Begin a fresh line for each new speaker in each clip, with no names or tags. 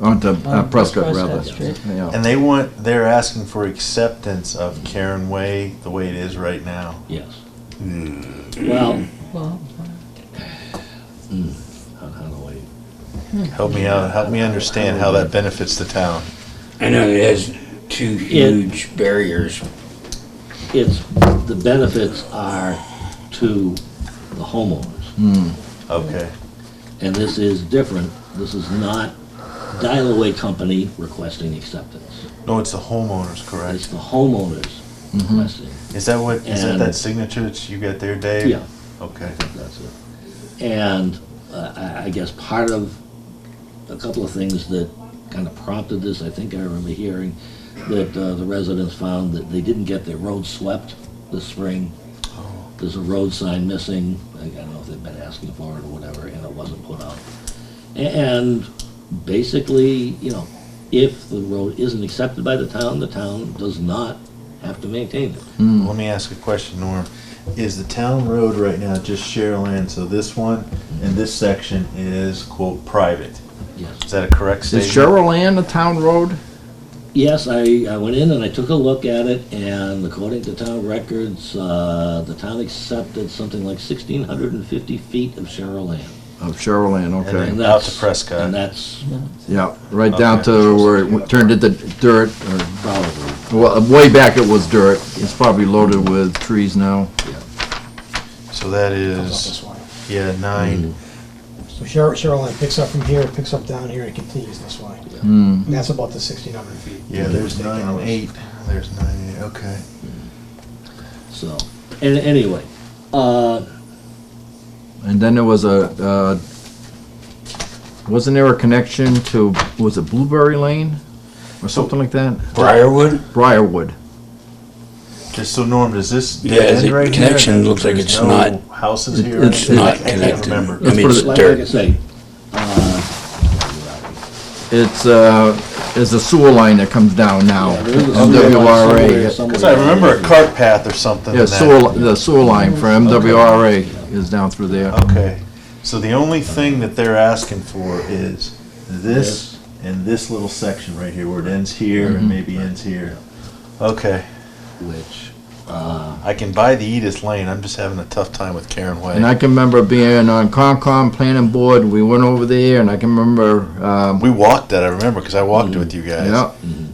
onto uh,
On
Prescott rather.
Prescott Street.
Yeah.
And they want, they're asking for acceptance of Karen Way the way it is right now.
Yes. Well,
Well,
how how do I?
Help me out, help me understand how that benefits the town.
I know it has two huge barriers.
It's, the benefits are to the homeowners.
Okay,
And this is different. This is not dial-away company requesting acceptance.
no, it's the homeowners,
It's
correct?
the homeowners requesting.
Is that what, is that
And-
that signature that you got there, Dave?
Yeah,
Okay,
that's it. And uh, I, I guess part of, a couple of things that kind of prompted this, I think I remember hearing, that uh, the residents found that they didn't get their roads swept this spring. There's a road sign missing, I I don't know if they've been asking for it or whatever, and it wasn't put up. A- And basically, you know, if the road isn't accepted by the town, the town does not have to maintain it.
let me ask a question, Norm. Is the town road right now just share land, so this one and this section is quote private?
Yes.
Is that a correct
Is
statement?
Cheryl Land a town road?
Yes, I, I went in and I took a look at it, and according to town records, uh, the town accepted something like sixteen hundred and fifty feet of Cheryl land.
Of Cheryl Land,
Oh, And
Oh, okay.
then-
And
Out
that's-
to Prescott.
And that's
Yeah, right down
Okay.
to where it w- turned into dirt, or,
probably,
well, way back it was dirt. It's probably loaded with trees now.
So that
comes up this
is,
way.
yeah, nine.
So Cheryl, Cheryl Lane picks up from here, picks up down here, and continues this way. And that's about the sixteen hundred feet.
Hmm. Yeah, there's
Take
nine and
hours.
eight. There's nine and eight, okay.
so, and anyway, uh,
And then there was a, uh, wasn't there a connection to, was it Blueberry Lane? Or something like that?
Briarwood?
Briarwood.
Just so Norm, does this
Yeah,
dead end
the
right here?
connection looks like
There's
it's
no
not-
Houses here.
It's
I
not
can't
connected. I
remember.
Let's
mean,
put
it's
it
like I
dirt.
say,
It's, uh, it's a sewer line that comes down now.
yeah, there is a sewer line
Oh,
somewhere-
MWRA.
somewhere
Because I remember a cart path or something.
Yeah,
in that.
sewer, li- the sewer line for MWRA is down through there.
Okay, so the only thing that they're asking for is this and this little section right here, where it ends here
Mm-hmm.
and maybe ends here. Okay,
Which,
uh,
I can buy the Edith Lane, I'm just having a tough time with Karen
And
Way.
I can remember being on Concom Planning Board, we went over there, and I can remember, um,
We walked that, I remember, because I walked it with you guys.
Mm-hmm.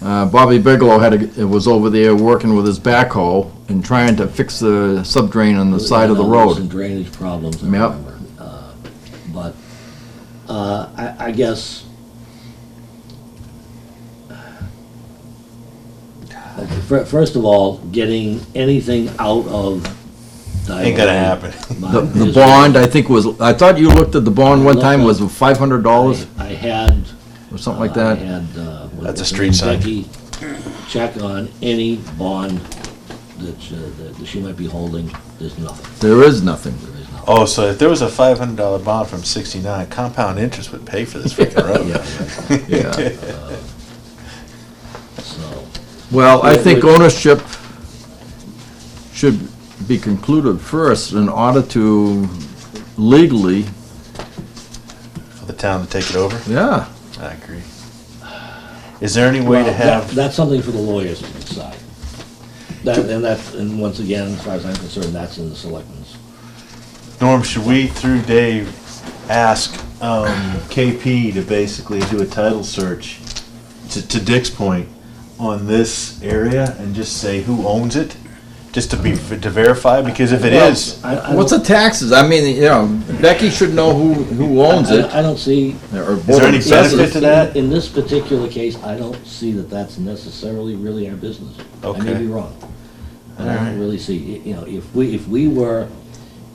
yeah. Uh, Bobby Bigelow had, a- was over there working with his backhoe and trying to fix the subdrain on the side of the
you know,
road.
Some drainage problems, I
Yep.
remember. Uh, But, uh, I, I guess. Okay, fir- First of all, getting anything out of.
Ain't gonna happen.
The, the bond, I think was, I thought you looked at the bond one time, was five hundred dollars
I had.
or something like
uh, I
that?
had, uh. what-
That's a street sign.
Becky check on any bond that, uh, that- that she might be holding, there's nothing,
There is nothing.
there is nothing.
Oh, so if there was a five hundred dollar bond from sixty-nine, compound interest would pay for this freaking road.
Yeah.
So,
Well, I
Yeah,
think
which-
ownership should be concluded first in order to legally,
For the town to take it over?
yeah.
I agree. Is there any way
Well,
to
that-
have,
That's something for the lawyers to decide. That, and that's, and once again, as far as I'm concerned, that's in the selectmen's.
Norm, should we, through Dave, ask um, KP to basically do a title search, to to Dick's point, on this area and just say who owns it? Just to be, to verify, because if it is,
I- I
What's the
don't-
taxes? I mean, you know, Becky should know who, who owns
I-
it.
I don't see.
Or
there any
both.
benefit
Yes,
to that?
In this particular case, I don't see that that's necessarily really our business. I may
Okay.
be wrong. I don't really see, you know, if we, if we were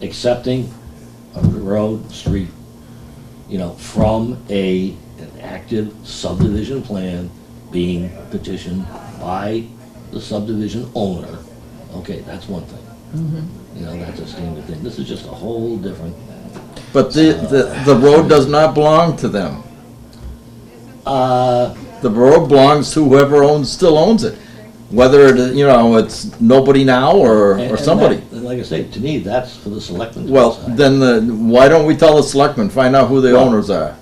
accepting a road, street, you know, from a, an active subdivision plan being petitioned by the subdivision owner, okay, that's one thing.
Mm-hmm.
You know, that's a standard thing. This is just a whole different,
But the, the, the road does not belong to them.
uh,
The road belongs to whoever owns, still owns it. Whether it, you know, it's nobody now or,
And-
or
and
somebody.
that- And like I say, to me, that's for the selectmen to
Well,
decide.
then the, why don't we tell the selectmen, find out who the owners are?